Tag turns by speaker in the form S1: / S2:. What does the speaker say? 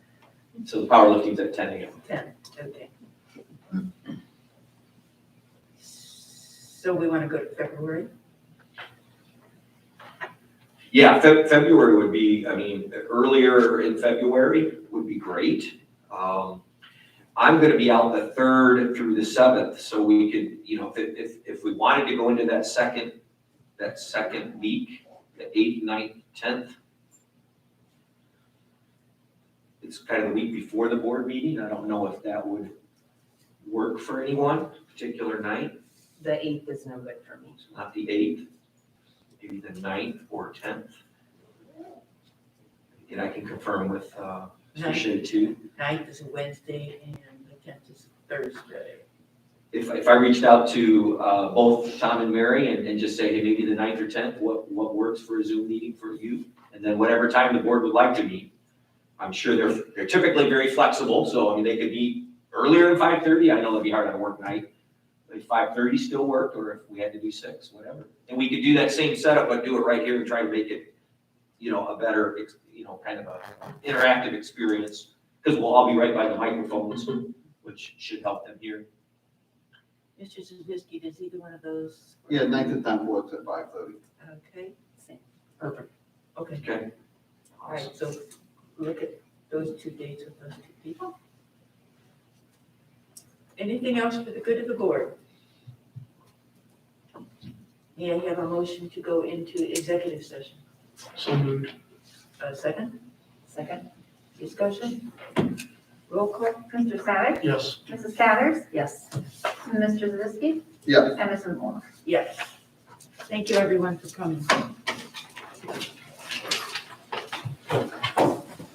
S1: So the powerlifting's at ten AM.
S2: Ten, okay. So we want to go to February?
S1: Yeah, Feb- February would be, I mean, earlier in February would be great. Um, I'm gonna be out the third through the seventh, so we could, you know, if, if, if we wanted to go into that second, that second week, the eighth, ninth, tenth. It's kind of the week before the board meeting. I don't know if that would work for anyone, particular night,
S3: The eighth is no good for me.
S1: It's not the eighth, maybe the ninth or tenth. And I can confirm with, uh, Mr.
S2: Ninth,
S1: Shea too.
S2: ninth is a Wednesday and the tenth is Thursday.
S1: If, if I reached out to, uh, both Tom and Mary and, and just say, hey, maybe the ninth or tenth, what, what works for a Zoom meeting for you? And then whatever time the board would like to meet. I'm sure they're, they're typically very flexible, so I mean, they could meet earlier than five thirty. I know it'd be hard on a work night. If five thirty still worked, or if we had to do six, whatever. And we could do that same setup, but do it right here and try to make it, you know, a better, ex- you know, kind of a interactive experience. Because we'll all be right by the microphones, which should help them hear.
S2: Mr. Zuzinski, does either one of those?
S4: Yeah, ninth and tenth works at five thirty.
S2: Okay. Perfect. Okay,
S1: Okay.
S2: all right, so look at those two dates with those two people. Anything else for the good of the board? May I have a motion to go into executive session?
S5: So moved.
S2: A second?
S3: Second?
S2: Discussion? Roll call?
S6: Mr. Savick,
S5: Yes.
S6: Mrs. Cathers,
S3: Yes.
S6: Mr. Zavisky,
S4: Yes.
S6: and Mrs. Moore.
S2: Yes. Thank you, everyone, for coming.